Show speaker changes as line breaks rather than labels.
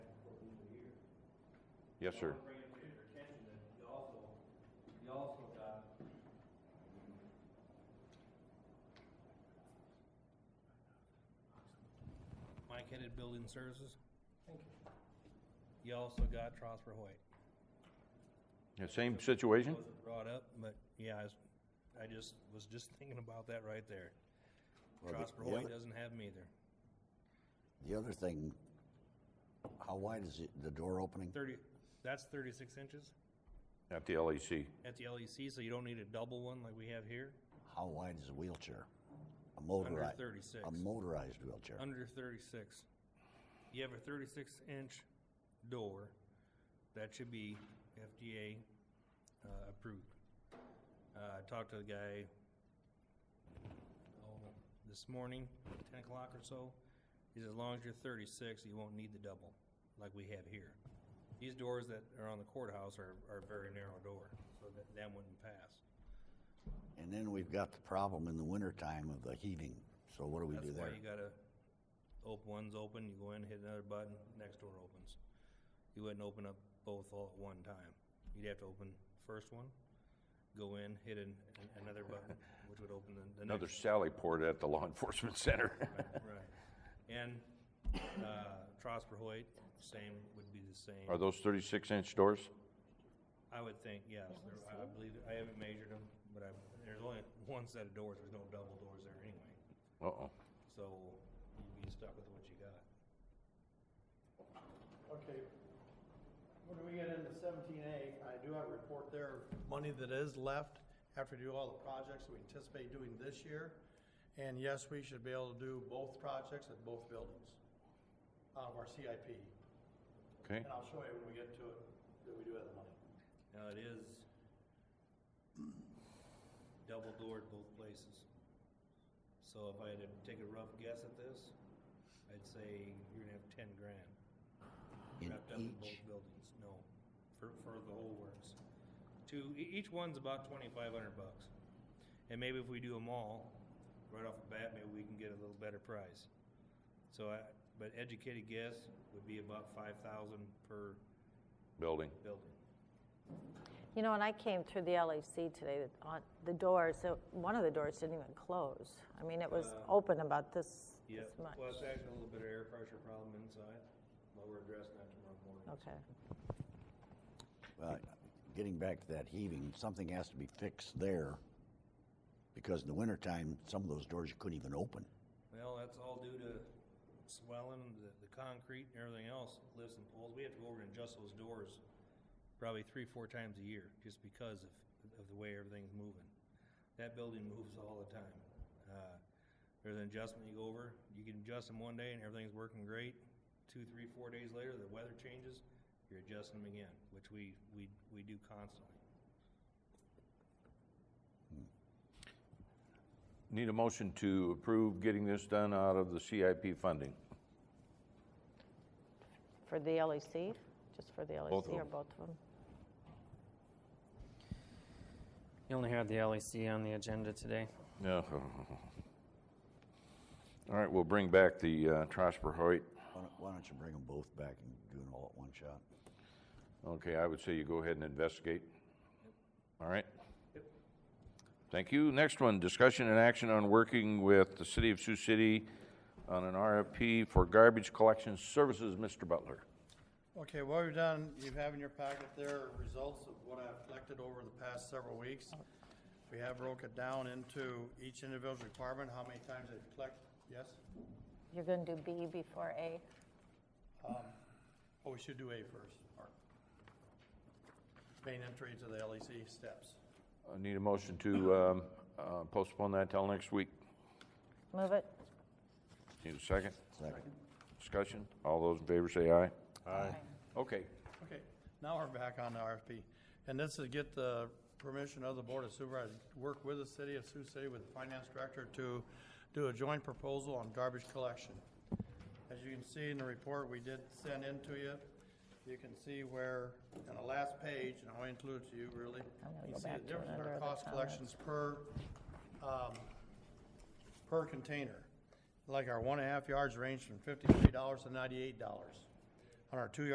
Yes, sir.
Bring it to your attention that you also, you also got. Mike headed building services. Thank you. You also got Trosper Hoyt.
Yeah, Same situation?
Wasn't brought up, but yeah, I was, I just, was just thinking about that right there.
Well, the-
Trosper
the
Hoyt
other-
doesn't have them either.
The other thing, how wide is it, the door opening?
Thirty, that's thirty-six inches
At the LEC.
at the LEC, so you don't need a double one like we have here.
How wide is a wheelchair? A motorized,
36.
a motorized wheelchair.
Under thirty-six. You have a thirty-six inch door that should be FDA uh, approved. Uh, I talked to the guy oh, this morning, ten o'clock or so. He said, as long as you're thirty-six, you won't need the double like we have here. These doors that are on the courthouse are, are a very narrow door, so that, that wouldn't pass.
And then we've got the problem in the wintertime of the heating, so what do we
That's
do
why
there?
you gotta, op, one's open, you go in, hit another button, next door opens. You wouldn't open up both all at one time. You'd have to open first one, go in, hit an, an- another button, which would open the, the
Another
next.
Sally port at the law enforcement center.
Right. And, uh, Trosper Hoyt, same, would be the
Are
same.
those thirty-six inch doors?
I would think, yes, there- I believe, I haven't measured them, but I, there's only one set of doors, there's no double doors there anyway.
Uh-oh.
So you'd be stuck with what you got.
Okay. When we get into seventeen A, I do have a report there, of money that is left after we do all the projects we anticipate doing this year. And yes, we should be able to do both projects at both buildings out of our CIP.
Okay.
And I'll show you when we get to it, that we do have the money.
Now it is double doored both places. So if I had to take a rough guess at this, I'd say you're gonna have ten grand
In
wrapped up in both
each,
buildings, no, for, for the whole works. Two, e- each one's about twenty-five hundred bucks. And maybe if we do them all, right off the bat, maybe we can get a little better price. So I, but educated guess would be about five thousand per
Building.
building.
You know, and I came through the LAC today, that on the doors, so one of the doors didn't even close. I mean, it was
Uh,
open about this,
Yeah,
this much.
well, it's actually a little bit of air pressure problem inside, but we're addressing that tomorrow morning.
Okay.
uh, getting back to that heaving, something has to be fixed there. Because in the wintertime, some of those doors you couldn't even open.
Well, that's all due to swelling, the, the concrete and everything else, lifts and poles. We have to go over and adjust those doors probably three, four times a year, just because of, of the way everything's moving. That building moves all the time. Uh, There's an adjustment you go over, you can adjust them one day and everything's working great. Two, three, four days later, the weather changes, you're adjusting them again, which we, we, we do constantly.
Need a motion to approve getting this done out of the CIP funding.
For the LAC, just for the LAC
Both of
or
them.
both of them?
You only had the LEC on the agenda today.
Yeah. All right, we'll bring back the, uh, Trosper Hoyt.
Why don't, why don't you bring them both back and do it all at one shot?
Okay, I would say you go ahead and investigate. All right? Thank you. Next one, discussion and action on working with the city of Sioux City on an RFP for garbage collection services, Mr. Butler.
Okay, what we've done, you have in your packet there results of what I've collected over the past several weeks. We have broke it down into each individual requirement, how many times they've collected, yes?
You're going to do B before A?
Oh, we should do A first, Mark. Main entry to the LEC steps.
I need a motion to um, uh, postpone that till next week.
Move it?
Need a second?
Second.
Discussion? All those in favor say aye.
Aye.
Okay.
Okay, now we're back on the RFP. And this is get the permission of the Board of Supervisors, to work with the city of Sioux City with the finance director to do a joint proposal on garbage collection. As you can see in the report we did send in to you, you can see where, on the last page, and I'll include you really,
I'm gonna
you
go
see the
back to
difference in
another
our
of the
cost collections per, um, per container. Like our one and a half yards range from fifty-three dollars to ninety-eight dollars. On our two